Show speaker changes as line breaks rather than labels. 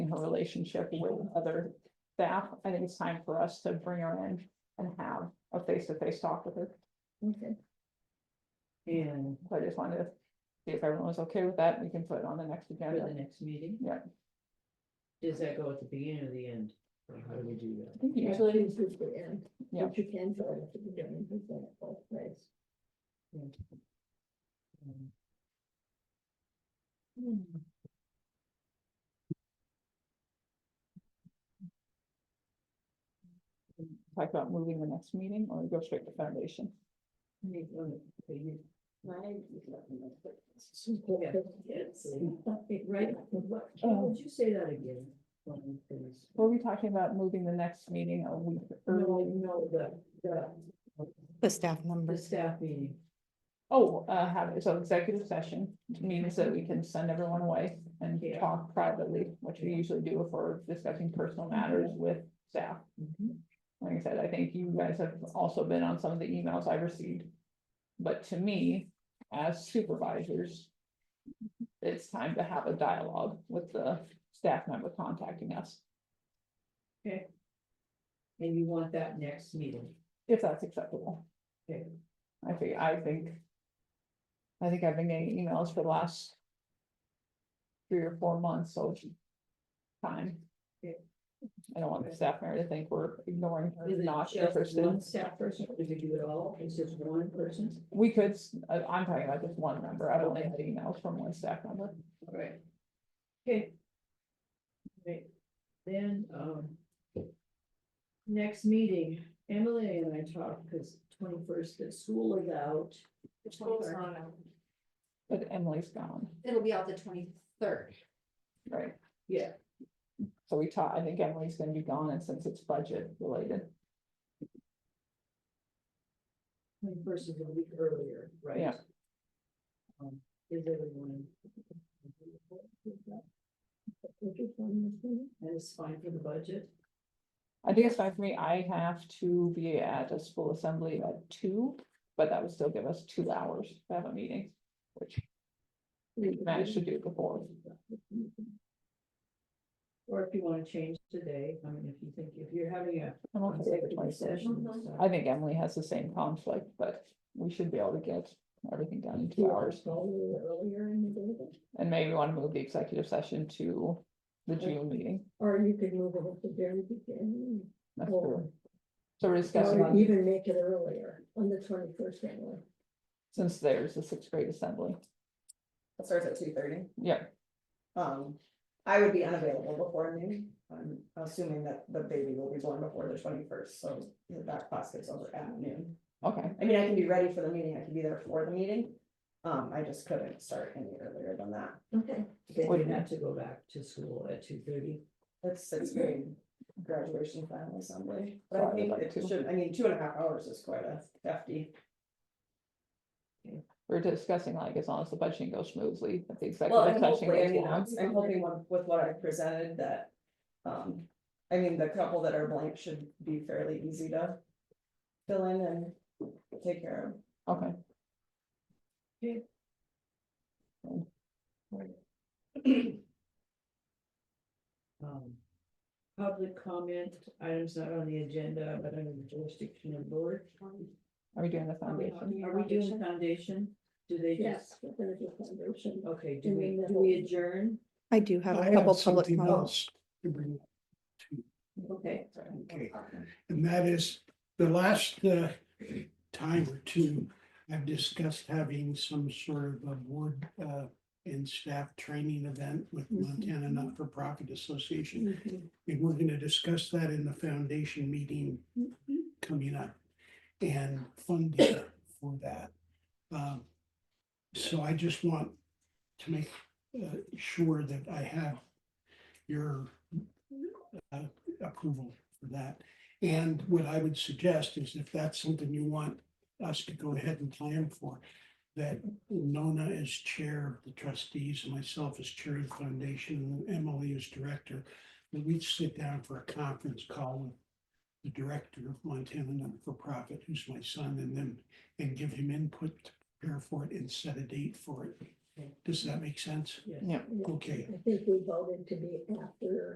relationship with other staff. I think it's time for us to bring her in and have a face-to-face talk with her.
Okay.
And
So I just wanted to see if everyone was okay with that. We can put it on the next
for the
agenda.
next meeting?
Yeah.
Does that go at the beginning or the end? Or How do we do
I
that?
think you
Usually it's just the end.
Yeah.
But you can try to be doing it at both ways.
Um,
talk about moving the next meeting or go straight to foundation.
Maybe, oh, okay, you-
Yes.
Right, what, oh, would you say that again? Um, please.
Were we talking about moving the next meeting a week
No,
early?
no, the, the,
The staff
the
members.
staff meeting.
Oh, uh, have, so executive session means that we can send everyone away and
Yeah.
talk privately, which we usually do if we're discussing personal matters with staff.
Mm-hmm.
Mhm.
Like I said, I think you guys have also been on some of the emails I've received. But to me, as supervisors. It's time to have a dialogue with the staff member contacting us,
And you want that next meeting?
if that's acceptable.
Okay.
I think, I think. I think I've been getting emails for the last. Three or four months, so. it's Time.
Okay.
I don't want the staff member to think we're ignoring her,
Is it
not
just
interested.
One staff person, or do you do it all, it's just one person?
We could, s- I- I'm talking about just one member, I've only had emails from one staff member.
Alright. Okay. Right, then, um. Next meeting, Emily and I talked, because twenty-first, the school is out.
The twenty-third,
But Emily's gone,
it'll be out the twenty-third,
right?
Yeah.
So we taught, I think Emily's gonna be gone and since it's budget related,
Twenty-first is a week earlier, right?
Yeah.
Um, is everyone? That is fine for the budget,
I think it's fine for me, I have to be at a school assembly at two. But that would still give us two hours to have a meeting, which we managed to do before.
or if you wanna change today, I mean, if you think, if you're having a
I'm okay with the
executive
26th.
session.
Mhm.
so-
I think Emily has the same conflict, but we should be able to get everything done in two hours.
Earlier in the day,
And maybe want to move the executive session to the June meeting.
or you could move it at the very beginning,
That's
Oh.
true. So we're
or
discussing,
even make it earlier on the twenty first anyway.
since there's a sixth grade assembly,
It starts at two thirty.
yeah,
Um, I would be unavailable before noon. I'm assuming that the baby will be born before the twenty first, so that class gets over at noon.
okay,
I mean, I can be ready for the meeting. I can be there for the meeting. Um, I just couldn't start any earlier than that.
Okay.
Then
Would-
you have to go back to school at two thirty.
That's sixth grade graduation final assembly. But I
Sorry,
think
like
it
two.
should, I mean, two and a half hours is quite a hefty.
we're discussing like as long as the budgeting goes smoothly, if the
Well,
executive
and
session
hopefully, I
goes
mean, I'm
long.
I'm hoping with- with what I presented that, um, I mean, the couple that are blank should be fairly easy to fill in and take care of.
Okay,
Um, Public comment, items not on the agenda, but under the jurisdiction of board. Um,
are we doing the
Are we
foundation?
are we doing foundation? Do they
Yes,
just,
we're gonna do foundation.
okay, do we, do we adjourn?
I do have
I
a
have
couple public
something
comments.
else to bring,
Okay.
okay, and that is the last uh, time or two, I've discussed having some sort of a board uh, and staff training event with
Mm-hmm.
Montana Not-for-Profit Association. And we're gonna discuss that in the foundation meeting coming up and funding for that. Um, So I just want to make uh, sure that I have your uh, approval for that. And what I would suggest is if that's something you want us to go ahead and plan for, that Nona is chair of the trustees, myself as chair of the foundation, and Emily is director that we'd sit down for a conference call with the director of Montana Not-for-Profit, who's my son, and then, and give him input to prepare for it and set a date for it. Does that make sense?
Yes.
Yeah.
Okay.
I think we voted to be after